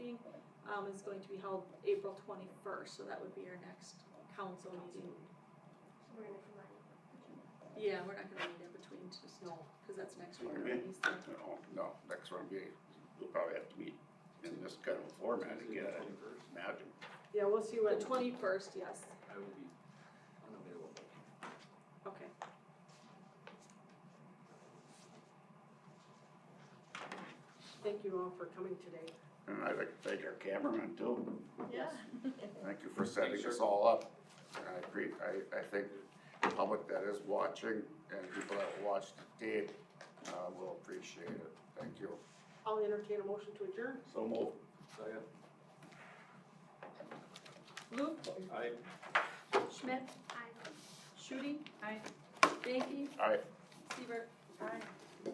um, is going to be held April twenty-first, so that would be our next council meeting. So we're gonna combine. Yeah, we're not gonna meet in between, just, No. cause that's next week Okay. already, so. No, Oh, no, next round be, we'll probably have to meet in this kind of format again, I imagine. Yeah, we'll see The what, twenty-first, yes, I will be unavailable. okay. thank you all for coming today. And I'd like to thank our cameraman too. Yeah. Thank you for setting Thanks, sir. this all up. And I pre, I, I think the public that is watching and people that watched the tape, uh, will appreciate it. Thank you. I'll entertain a motion to adjourn. So move. Second. Luke, I. Schmidt, I Shooting. Aye. Banky, Aye. Seaver. Aye.